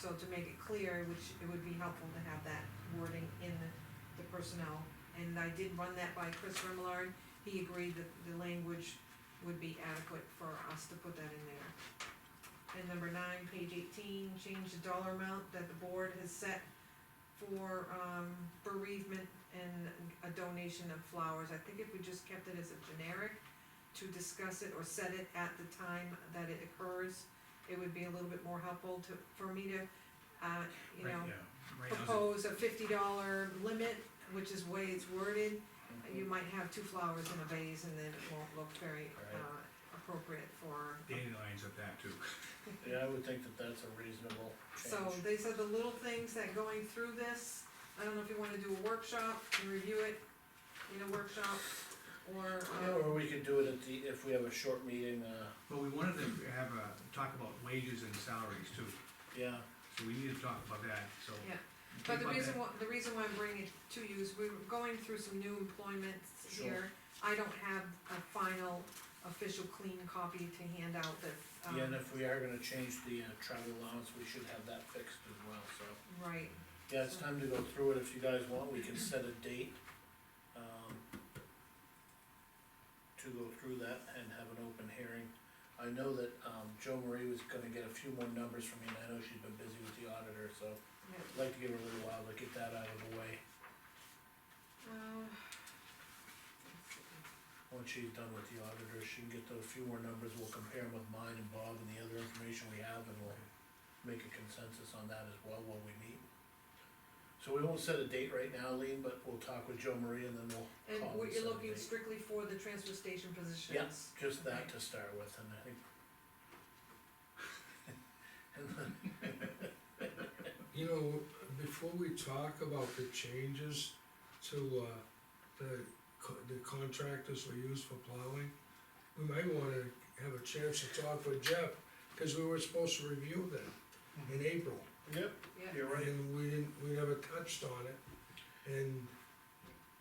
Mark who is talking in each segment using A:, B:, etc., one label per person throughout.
A: So to make it clear, which it would be helpful to have that wording in the, the personnel. And I did run that by Chris Remillard, he agreed that the language would be adequate for us to put that in there. And number nine, page eighteen, change the dollar amount that the board has set for, um, bereavement and a donation of flowers. I think if we just kept it as a generic to discuss it or set it at the time that it occurs, it would be a little bit more helpful to, for me to, uh, you know,
B: Right, yeah. Right now, it's-
A: propose a fifty dollar limit, which is way it's worded. You might have two flowers in a vase and then it won't look very,
C: Right.
A: uh, appropriate for.
B: dandelions of that too.
C: Yeah, I would think that that's a reasonable
A: So
C: change.
A: these are the little things that going through this, I don't know if you wanna do a workshop and review it in a workshop, or,
C: Yeah,
A: uh,
C: or we could do it at the, if we have a short meeting, uh,
B: But we wanted to have a, talk about wages and salaries too,
C: yeah,
B: so we need to talk about that, so.
A: Yeah.
B: Think
A: But the
B: about
A: reason
B: that.
A: why, the reason why I'm bringing it to you is we we're going through some new employments here. I don't have a final official clean copy to hand out that,
C: yeah, and
A: um,
C: if we are gonna change the uh, travel allowance, we should have that fixed as well, so.
A: right,
C: Yeah, it's time to go through it, if you guys want, we can set a date, um, to go through that and have an open hearing. I know that, um, Joe Marie was gonna get a few more numbers from me, and I know she's been busy with the auditor, so
A: yeah.
C: I'd like to give her a little while to get that out of the way,
A: Uh,
C: once she's done with the auditor, she can get those few more numbers, we'll compare them with mine and Bob and the other information we have, and we'll make a consensus on that as well while we meet. So we won't set a date right now, Lean, but we'll talk with Joe Marie and then we'll
A: And
C: Call
A: what
C: and
A: you're
C: set a
A: looking
C: date.
A: strictly for the transfer station positions?
C: Just that to start with, and I think.
D: You know, before we talk about the changes to, uh, the, co- the contractors we use for plowing, we might wanna have a chance to talk with Jeff, cause we were supposed to review that in April.
C: Yep,
A: Yeah,
C: you're right.
D: And we didn't, we never touched on it, and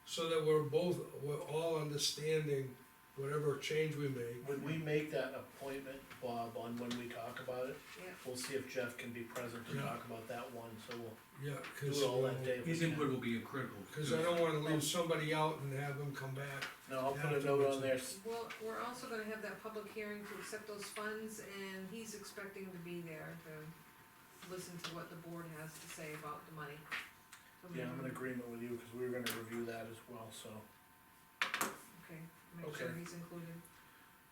D: so that we're both, we're all understanding whatever change we make.
C: When we make that appointment, Bob, on when we talk about it,
A: yeah,
C: we'll see if Jeff can be present to
D: Yeah.
C: talk about that one, so we'll
D: Yeah, cause,
C: do it all that
D: uh,
C: day. if we
B: His
C: can.
B: input will be critical.
D: cause I don't wanna leave somebody out and have them come back
C: No, I'll put a note on there,
A: well, we're also gonna have that public hearing to accept those funds, and he's expecting to be there to listen to what the board has to say about the money. So
C: yeah, I'm in
A: maybe-
C: agreement with you, cause we were gonna review that as well, so.
A: Okay, make sure
C: Okay.
A: he's included.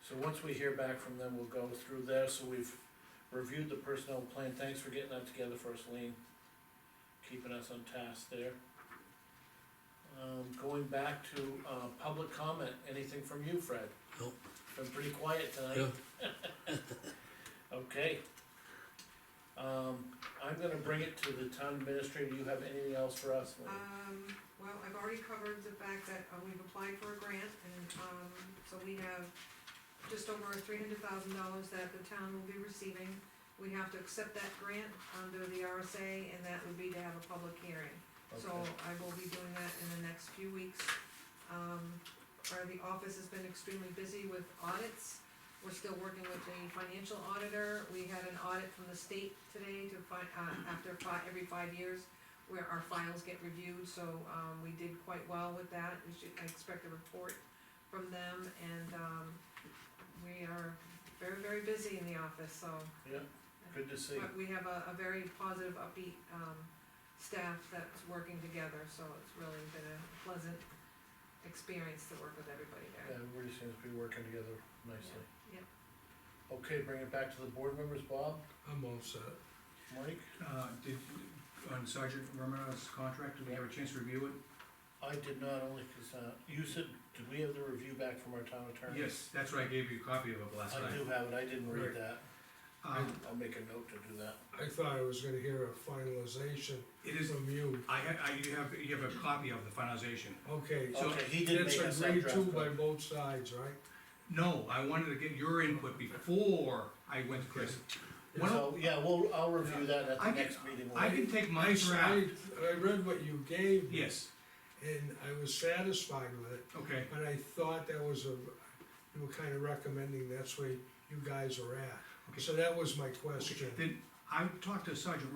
C: So once we hear back from them, we'll go through there, so we've reviewed the personnel plan, thanks for getting that together for us, Lean. Keeping us on task there. Um, going back to, uh, public comment, anything from you, Fred?
E: Nope.
C: Been pretty quiet tonight. Okay. Um, I'm gonna bring it to the town administrator, you have anything else for us, Lean?
A: Um, well, I've already covered the fact that uh, we've applied for a grant, and, um, so we have just over three hundred thousand dollars that the town will be receiving. We have to accept that grant under the RSA, and that would be to have a public hearing. Uh, So
C: Okay.
A: I will be doing that in the next few weeks. Um, our, the office has been extremely busy with audits. We're still working with the financial auditor. We had an audit from the state today to find, uh, after fi- every five years where our files get reviewed, so, um, we did quite well with that. We should, I expect a report from them and, um, we are very, very busy in the office, so.
C: Yeah, good to see.
A: But we have a, a very positive, upbeat, um, staff that's working together, so it's really been a pleasant experience to work with everybody
C: Yeah,
A: there.
C: everybody seems to be working together nicely.
A: Yeah,
C: Okay, bring it back to the board members, Bob,
D: I'm all set.
C: Mike?
B: Uh, did, on Sergeant Romano's contract, did we have a chance to review it?
C: I did not only, cause, uh, you said, did we have the review back from our town attorney?
B: Yes, that's what I gave you a copy of it last
C: I
B: night.
C: do have it, I didn't read
B: Right.
C: that,
B: Um,
C: I'll make a note to do that.
D: I thought I was gonna hear a finalization
B: it is,
D: from you.
B: I, ha- I, you have, you have a copy of the finalization.
D: Okay,
C: Okay,
D: so
C: Oh, he did
D: that's
C: make us that
D: agreed
C: draft.
D: to by
C: copy.
D: both sides, right?
B: No, I wanted to get your input before I went to Chris. Why don't-
C: So, yeah, well, I'll review that at
B: I
C: the
B: can-
C: next meeting.
B: I can take my draft,
D: I I read what you gave me.
B: yes,
D: And I was satisfied with it,
B: okay,
D: but I thought that was a, you were kinda recommending that's where you guys are at.
B: Okay.
D: So that was my question.
B: then I talked to Sergeant